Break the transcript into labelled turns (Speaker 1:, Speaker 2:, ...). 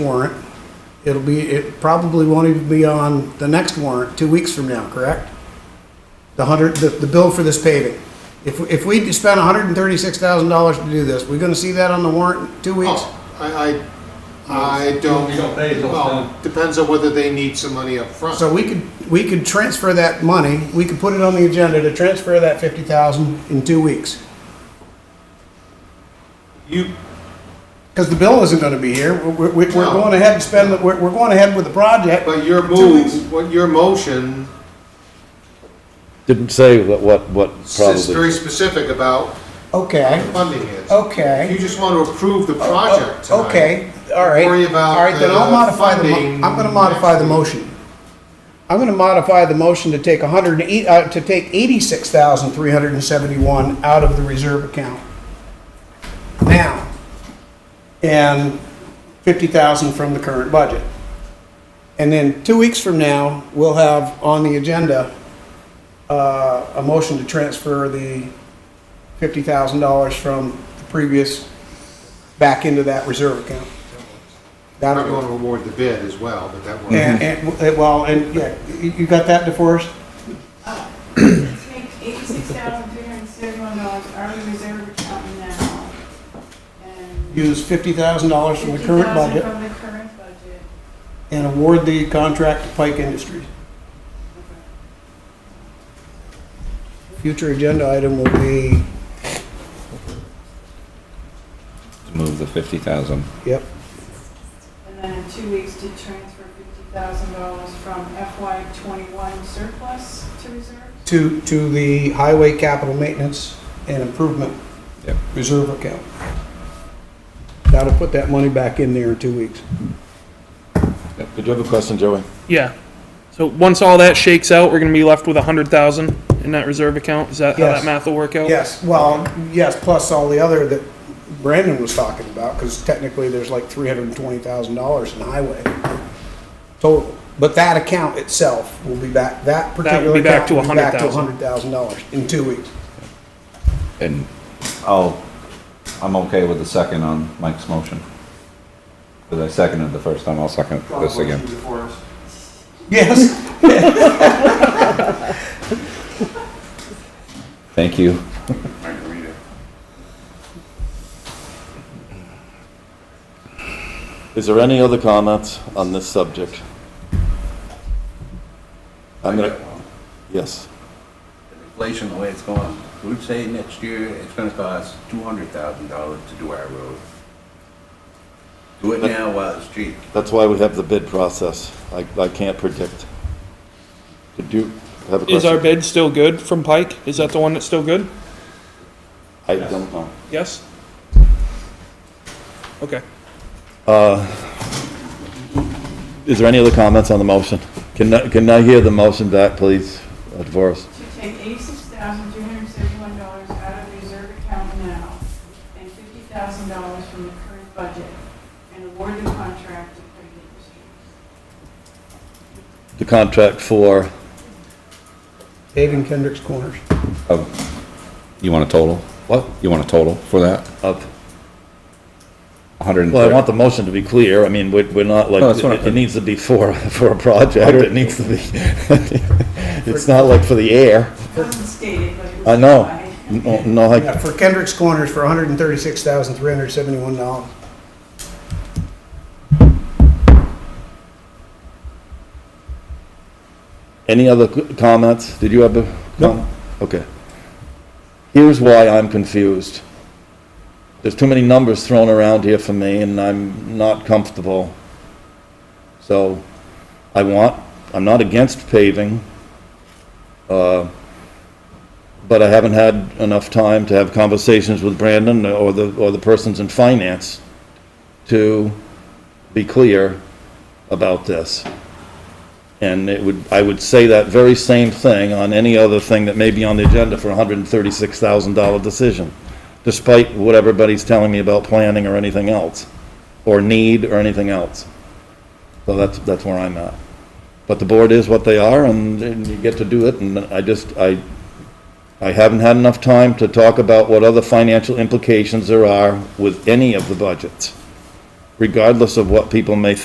Speaker 1: warrant, it'll be, it probably won't even be on the next warrant, two weeks from now, correct? The hundred, the, the bill for this paving. If, if we spend hundred and thirty-six thousand dollars to do this, we're gonna see that on the warrant in two weeks?
Speaker 2: Oh, I, I, I don't,
Speaker 3: You don't pay till it's
Speaker 2: well,
Speaker 3: done.
Speaker 2: depends on whether they need some money up front.
Speaker 1: So we could, we could transfer that money, we could put it on the agenda to transfer that fifty thousand in two weeks.
Speaker 2: You,
Speaker 1: Cause the bill isn't gonna be here, we're, we're, we're
Speaker 2: No.
Speaker 1: going ahead and spend, the- we're, we're going ahead with the project.
Speaker 2: but your
Speaker 1: Two weeks.
Speaker 2: move, what your motion
Speaker 4: Didn't say what, what, what
Speaker 2: is very
Speaker 4: probably.
Speaker 2: specific about
Speaker 1: Okay,
Speaker 2: funding is.
Speaker 1: okay. Oh,
Speaker 2: If you just want to approve the project tonight.
Speaker 1: Okay, all right.
Speaker 2: Worry about
Speaker 1: All right, then I'll
Speaker 2: the
Speaker 1: modify the,
Speaker 2: funding
Speaker 1: mo- I'm gonna modify the
Speaker 2: next week.
Speaker 1: motion. I'm gonna modify the motion to take hundred and eight, uh, to take eighty-six thousand three hundred and seventy-one out of the reserve account. Now, and fifty thousand from the current budget. And then two weeks from now, we'll have on the agenda, uh, a motion to transfer the fifty thousand dollars from the previous back into that reserve account.
Speaker 2: I'm
Speaker 1: That'll
Speaker 2: not
Speaker 1: go.
Speaker 2: going to award the bid as well, but that one.
Speaker 1: And, and, well, and, yeah, you you got that, DeForest?
Speaker 5: Take eighty-six thousand three hundred and seventy-one dollars out of the reserve account now. and
Speaker 1: Use fifty thousand dollars from the current
Speaker 5: 50,000
Speaker 1: budget
Speaker 5: From the current budget.
Speaker 1: and award the contract to Pike Industries. Future agenda item will be,
Speaker 6: Move the fifty thousand.
Speaker 1: yep,
Speaker 5: And then in two weeks to transfer fifty thousand dollars from FY twenty-one surplus to reserve.
Speaker 1: to, to the highway capital maintenance and improvement
Speaker 6: Yep.
Speaker 1: reserve account. That'll put that money back in there in two weeks.
Speaker 4: Did you have a question, Joey?
Speaker 7: Yeah. So once all that shakes out, we're gonna be left with a hundred thousand in that reserve account. Is that how
Speaker 1: Yes.
Speaker 7: that math will work out?
Speaker 1: Yes, well, yes, plus all the other that Brandon was talking about, because technically there's like three hundred and twenty thousand dollars in highway total. But that account itself will be back, that
Speaker 7: will
Speaker 1: particular
Speaker 7: be back
Speaker 1: account
Speaker 7: to
Speaker 1: will be back to a
Speaker 7: $100,000.
Speaker 1: hundred thousand dollars in two weeks.
Speaker 6: And I'll, I'm okay with the second on Mike's motion. Because I seconded the first time, I'll second this again.
Speaker 1: Yes.
Speaker 6: Thank you.
Speaker 4: Is there any other comments on this subject? I'm gonna, yes.
Speaker 8: Inflation, the way it's going, we'd say next year it's gonna cost two hundred thousand dollars to do our road. Do it now while it's cheap.
Speaker 4: That's why we have the bid process. I, I can't predict. Did you have a question?
Speaker 7: Is our bid still good from Pike? Is that the one that's still good?
Speaker 4: I don't know.
Speaker 7: Yes? Okay.
Speaker 4: Uh, Is there any other comments on the motion? Can, I- can I hear the motion back, please, uh, Devorah?
Speaker 5: To take eighty-six thousand three hundred and seventy-one dollars out of the reserve account now and fifty thousand dollars from the current budget and award the contract to Craig Industries.
Speaker 4: The contract for,
Speaker 1: Paving Kendrick's Corners.
Speaker 8: Oh, You want a total?
Speaker 4: what?
Speaker 8: You want a total for that?
Speaker 4: Of
Speaker 8: A hundred and
Speaker 4: Well, I want
Speaker 8: thirty?
Speaker 4: the motion to be clear. I mean, we're, we're not like,
Speaker 8: No, that's what I-
Speaker 4: it needs to be for, for a project. It needs to be, it's not like for the air.
Speaker 5: It wasn't stated, but it was.
Speaker 4: I know.
Speaker 5: implied.
Speaker 4: No, no, like,
Speaker 1: Yeah, for Kendrick's Corners for hundred and thirty-six thousand, three hundred and seventy-one dollars.
Speaker 4: any other c- comments? Did you have a?
Speaker 1: No.
Speaker 4: com- Okay. Here's why I'm confused. There's too many numbers thrown around here for me and I'm not comfortable. So I want, I'm not against paving. uh, But I haven't had enough time to have conversations with Brandon or the, or the persons in finance to be clear about this. And it would, I would say that very same thing on any other thing that may be on the agenda for a hundred and thirty-six thousand dollar decision, despite what everybody's telling me about planning or anything else, or need or anything else. So that's, that's where I'm at. But the board is what they are, and, and you get to do it, and I just, I, I haven't had enough time to talk about what other financial implications there are with any of the budgets regardless of what people may